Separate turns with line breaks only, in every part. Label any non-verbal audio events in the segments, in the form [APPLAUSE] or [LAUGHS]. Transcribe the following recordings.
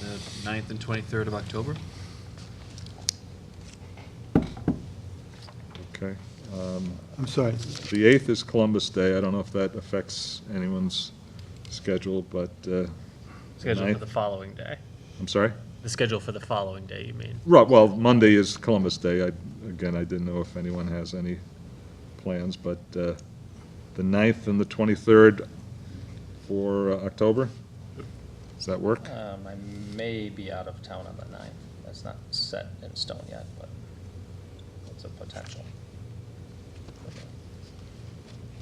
the 9th and 23rd of October.
Okay. Um,
I'm sorry.
The 8th is Columbus Day. I don't know if that affects anyone's schedule, but, uh,
Schedule
Ninth.
for the following day.
I'm sorry?
The schedule for the following day, you mean?
Right, well, Monday is Columbus Day. I, again, I didn't know if anyone has any plans, but uh, the 9th and the 23rd for uh, October? Does that work?
Um, I may be out of town on the ninth. That's not set in stone yet, but it's a potential.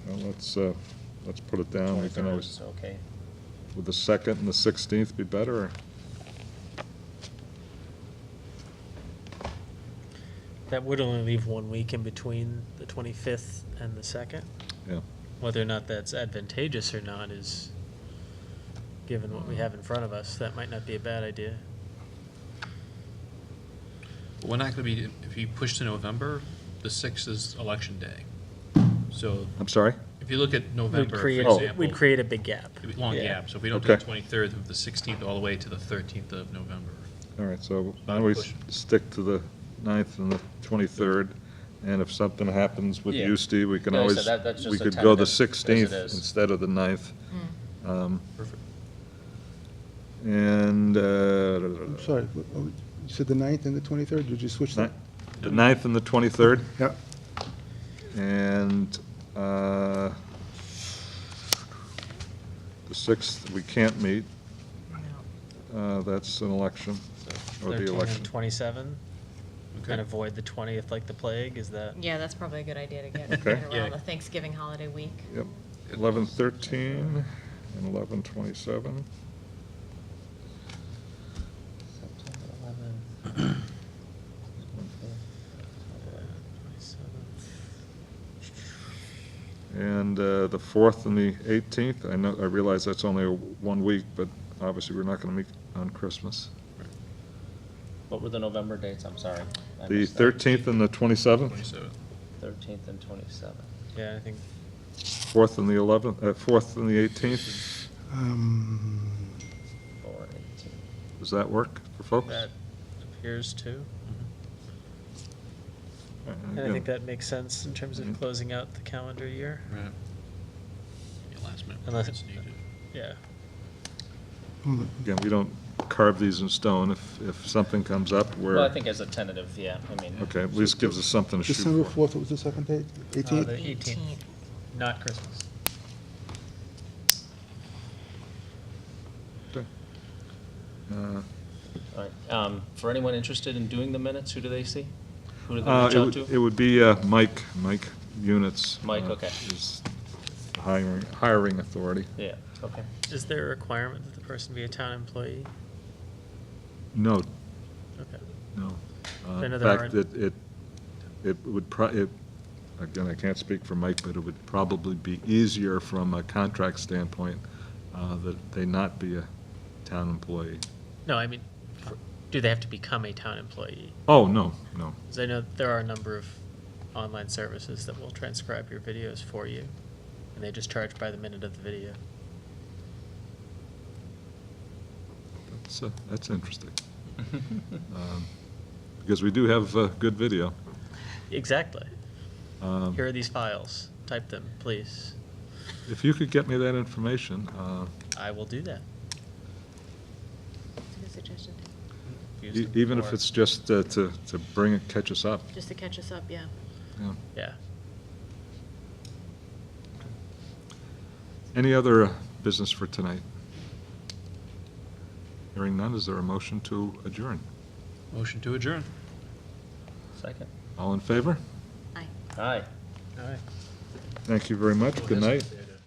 Well, let's, uh, let's put it down. Oh, We can
23rd
always,
is Okay,
would the 2nd and the 16th be better? or-
That would only leave one week in between the 25th and the 2nd.
Yeah.
Whether or not that's advantageous or not is, given what we have in front of us, that might not be a bad idea.
But we're not going to be, if you push to November, the 6th is election day. So
I'm sorry?
if you look at
We'd
November, for
create,
example.
we'd create a big gap.
it'd be Long
Yeah.
gap, so if we don't do the
Okay.
23rd, of the 16th all the way to the 13th of November.
All right, so
Not
why don't we
pushing.
stick to the 9th and the 23rd? And if something happens with
Yeah.
you, Steve, we can
Yeah, I said
always,
that- that's
we
just a
could go the
tentative, as it
16th
is. Hmm.
instead of the 9th.
Mm.
Um,
Perfect.
And, uh,
I'm sorry. What- what- You said the 9th and the 23rd? Did you switch that?
ni- the 9th and the 23rd,
Yeah.
and uh, the 6th, we can't meet. Uh, That's an election, or the
13 and
election.
27, and
Okay.
avoid the 20th like the plague, is that?
Yeah, that's probably a good idea to get
Okay.
get
Yeah.
around the Thanksgiving holiday week.
Yep, eleven thirteen and eleven twenty-seven.
September
[CLEARS THROAT]
eleventh.
27th.
And uh, the fourth and the eighteenth, I know, I realize that's only a one week, but obviously we're not gonna meet on Christmas.
What were the November dates? I'm sorry. I
The
missed that.
thirteenth and the twenty-seventh,
27th.
Thirteenth and twenty-seventh.
Yeah, I think
fourth and the eleventh, uh, fourth and the eighteenth,
Um,
Four eighteen.
does that work for folks?
that appears to. Mm-hmm.
All right,
And I
again,
think that makes sense in terms
Mhm.
of closing out the calendar year.
Right. Yeah, Last minute.
Unless-
plans needed.
Yeah.
hold on.
Again, we don't carve these in stone, if, if something comes up where.
Well, I think as a tentative, yeah, I mean.
Okay, at least gives us something to shoot
December
for.
4th, what was the second date?
Uh, the
18th?
18th, not Christmas.
Uh,
All right, um, for anyone interested in doing the minutes, who do they see? Who do they
Uh,
reach
It
out
would- it
to?
would be uh, Mike, Mike Units.
Mike,
uh,
okay.
Is the hiring, hiring authority.
Yeah, okay. [LAUGHS]
Is there a requirement that the person be a town employee?
No,
Okay.
no. Uh,
Another
In fact,
hiring-
it, it, it would, pro- it, again, I can't speak for Mike, but it would probably be easier from a contract standpoint uh, that they not be a town employee.
No, I mean, for- do they have to become a town employee?
Oh, no, no.
Because I know there are a number of online services that will transcribe your videos for you, and they just charge by the minute of the video.
That's, uh, that's interesting. Um, Because we do have uh, good video.
Exactly.
Um,
Here are these files. Type them, please.
If you could get me that information, uh,
I will do that.
It's a good suggestion.
Used
E-
them
Even if
before.
it's just uh, to, to bring it, catch us up.
Just to catch us up, yeah.
yeah.
Yeah.
Any other uh, business for tonight? Hearing none, is there a motion to adjourn?
Motion to adjourn.
Second.
All in favor?
Aye.
Aye.
All right.
Thank you very much. Good night.
There it is.